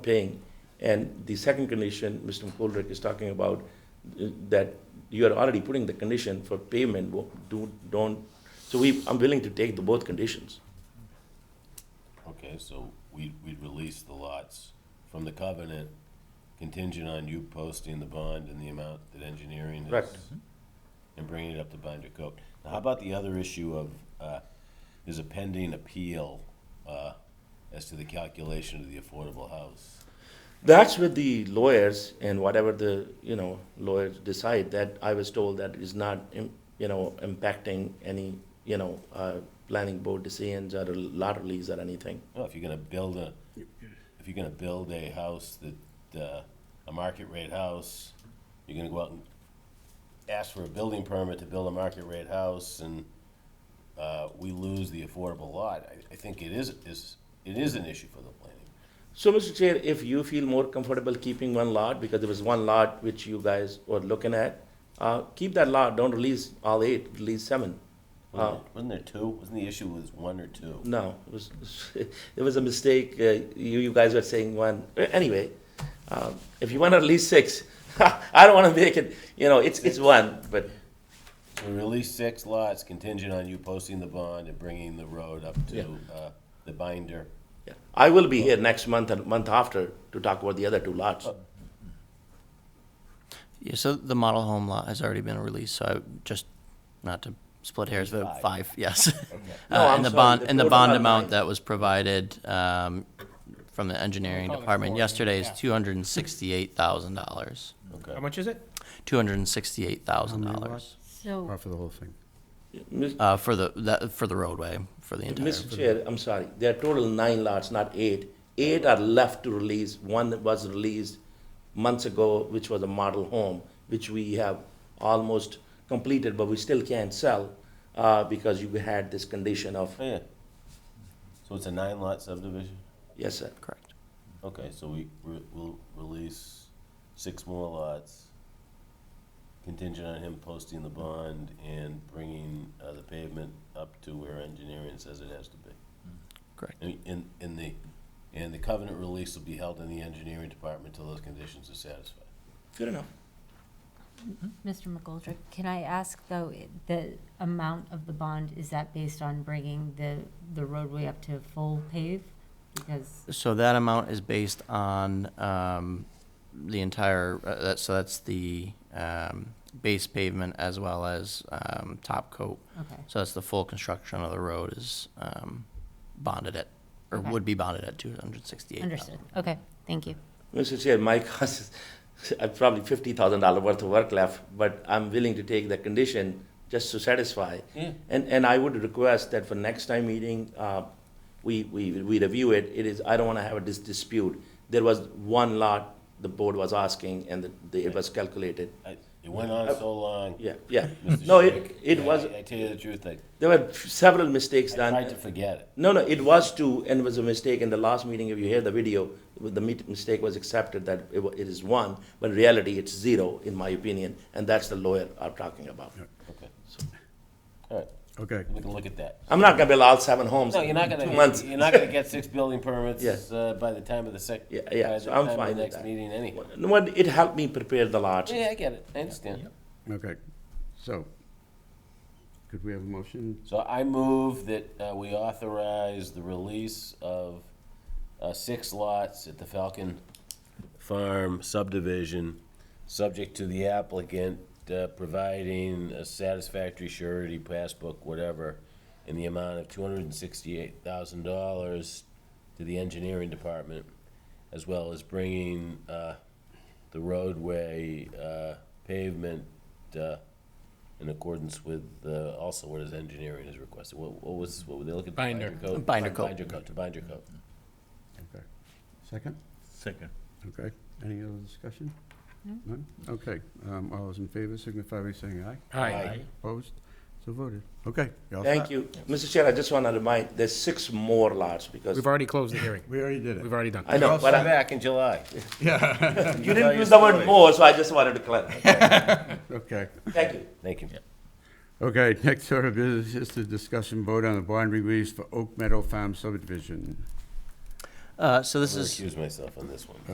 paying. And the second condition, Mr. McColdrick is talking about, uh, that you are already putting the condition for payment, wo- do, don't, so we, I'm willing to take the both conditions. Okay, so we, we'd release the lots from the covenant contingent on you posting the bond and the amount that engineering is. Mm-hmm. Correct. And bringing it up to binder coat. Now, how about the other issue of, uh, there's a pending appeal, uh, as to the calculation of the affordable house? That's with the lawyers and whatever the, you know, lawyers decide, that I was told that is not, im- you know, impacting any, you know, uh, planning board decisions or lot release or anything. Well, if you're gonna build a, if you're gonna build a house that, uh, a market rate house, you're gonna go out and ask for a building permit to build a market rate house and, uh, we lose the affordable lot, I, I think it is, is, it is an issue for the planning. So, Mr. Chair, if you feel more comfortable keeping one lot, because there was one lot which you guys were looking at, uh, keep that lot, don't release all eight, release seven. Uh, Wasn't there- Wasn't there two? Wasn't the issue was one or two? No, it was, it was a mistake, uh, you, you guys were saying one, Uh, anyway, um, if you wanna release six, I don't wanna make it, you know, it's, it's one, but, We released six lots contingent on you posting the bond and bringing the road up to, Yeah. uh, the binder. yeah. I will be here next month and month after to talk about the other two lots. Yeah, so the model home lot has already been released, so I, just, not to split hairs, but Five. five, yes. No, Uh, I'm And the sorry, bond, the and the total bond amount. amount that was provided, um, from the engineering Call it department four, yesterday is yeah. two hundred and sixty-eight thousand dollars. Okay. How much is it? Two hundred and sixty-eight thousand dollars, So, Or for the whole thing. Mis- uh, for the, that, for the roadway, for the entire. Mr. Chair, I'm sorry, there are total nine lots, not eight. Eight are left to release, one that was released months ago, which was a model home, which we have almost completed, but we still can't sell, uh, because you had this condition of, Oh, yeah. So it's a nine lot subdivision? yes, sir. Correct. Okay, so we, re- we'll release six more lots contingent on him posting the bond and bringing, uh, the pavement up to where engineering says it has to be. Correct. And, and- and the, and the covenant release will be held in the engineering department till those conditions are satisfied. Fair enough. Mr. McGoldrick, can I ask, though, i- the amount of the bond, is that based on bringing the, the roadway up to full pave? Because, So that amount is based on, um, the entire, uh, that, so that's the, um, base pavement as well as, um, top coat. okay, So that's the full construction of the road is um, bonded at, or Okay. would be bonded at two hundred sixty-eight. understood. Okay, thank you. Mr. Chair, my cost is uh, probably fifty thousand dollar worth of work left, but I'm willing to take the condition just to satisfy. Yeah. And, and I would request that for next time meeting, uh, we, we, we review it, it is, I don't wanna have a dis- dispute. There was one lot the board was asking and the, the, it was calculated, I, it went on so long. yeah, yeah. Mr. No, it, Schick, it I- was, I tell you the truth, I, there were several mistakes I done. tried to forget it. No, no, it was two, and it was a mistake, in the last meeting, if you hear the video, the mit- mistake was accepted that it wa- it is one, but in reality, it's zero, in my opinion, and that's the lawyer I'm talking about. Okay. All right, Okay. we can look at that. I'm not gonna build all seven homes No, you're in not gonna. two months. You're not gonna get six building Yeah. permits uh, by the time of the sec. Yeah, yeah, by the so I'm time of the fine with Next that. meeting anyway. No, but it helped me prepare the lots. Yeah, I get it, I understand. Okay. So, could we have a motion? So I move that uh, we authorize the release of uh, six lots at the Falcon Farm subdivision, subject to the applicant uh, providing a satisfactory surety, passbook, whatever, in the amount of two hundred and sixty-eight thousand dollars to the engineering department, as well as bringing uh, the roadway uh, pavement uh, in accordance with, uh, also what is engineering is requested. What what was, what were they looking? for? Binder. coat? Binder coat. Binder coat, to binder coat. Okay. Second? Second. Okay. Any other discussion? None? Okay. Um, all those in favor signify by saying aye. Aye. Opposed? So voted. Okay. you're all Thank set. you. Mr. Chair, I just wanna remind, there's six more lots, because, We've already closed the hearing. We already did it. We've already done. I know, You're but Come I- back in July. you didn't use the word more, so I just wanted to clarify. Okay. Thank you. Thank you. Okay, next order of business is to discuss and vote on the bond release for Oak Meadow Farm subdivision. Uh, so I'm this gonna is. Recuse myself on this one.